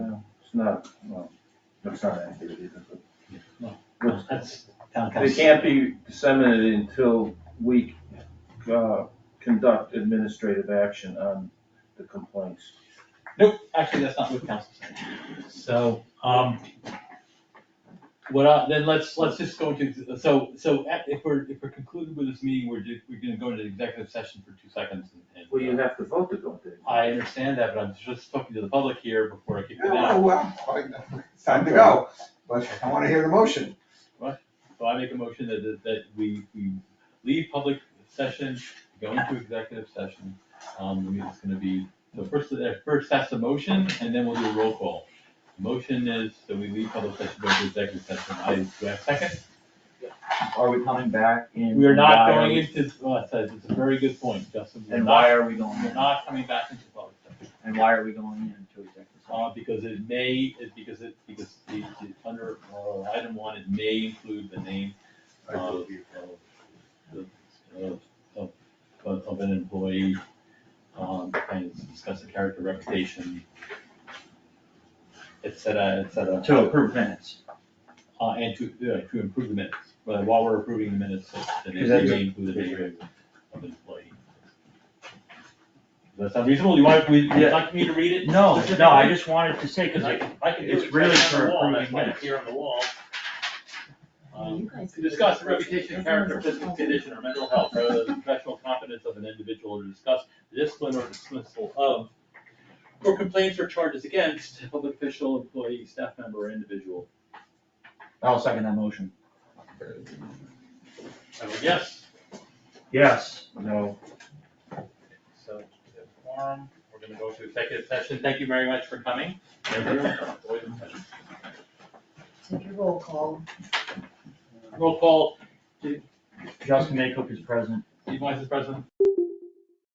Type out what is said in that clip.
It's not, well, it's not accurate either, but. Well, That's town council. They can't be disseminated until we, uh, conduct administrative action on the complaints. Nope, actually, that's not what council said. So, um, what, I- then let's, let's just go to, so, so at- if we're, if we're concluded with this meeting, we're, ju- we're gonna go into executive session for two seconds and- and. uh, Well, you have to vote to go there. I understand that, but I'm just talking to the public here before I kick it Yeah, out. well, it's time to go, but I wanna hear the motion. So I make a motion that, that- that we, we leave public session, go into executive session. Um, the meeting's gonna be, so first, uh, first that's the motion, and then we'll do a roll call. Motion is that we leave public session, go to executive session. I, do I have a second? Are we coming back in? We are not Why going we- into, well, it's a, it's a very good point, Justin. We're And not- why are we going We're in? not coming back into public session, And why are we going into executive session? uh, because it may, it, because it, because the, the- under, uh, item one, it may include the name of, of, of, of, of- of an employee, um, and discuss the character reputation, et cetera, et cetera. To approve minutes. Uh, and to, uh, to improve the minutes, but while we're approving the minutes, the name Is that- may include the name of the employee. Does that sound reasonable? You want, we, you'd Yeah. like me to read it? No, specifically? no, I just wanted to say, because I I, can, I can do it's it really right on for the wall, that's approving why it's minutes. here on the wall. Um, You guys- to discuss the reputation, character, physical condition, or mental health, rather than the professional competence of an individual, or to discuss the discipline or dismissal of, or complaints or charges against a public official, employee, staff member, or individual. I'll second that motion. I vote yes, Yes. No, so, we have quorum, we're gonna go to executive session, thank you very much for coming. Everyone, avoid the session. Take your roll call. Roll call, Justin Maycock is present. Steve Weiss is present.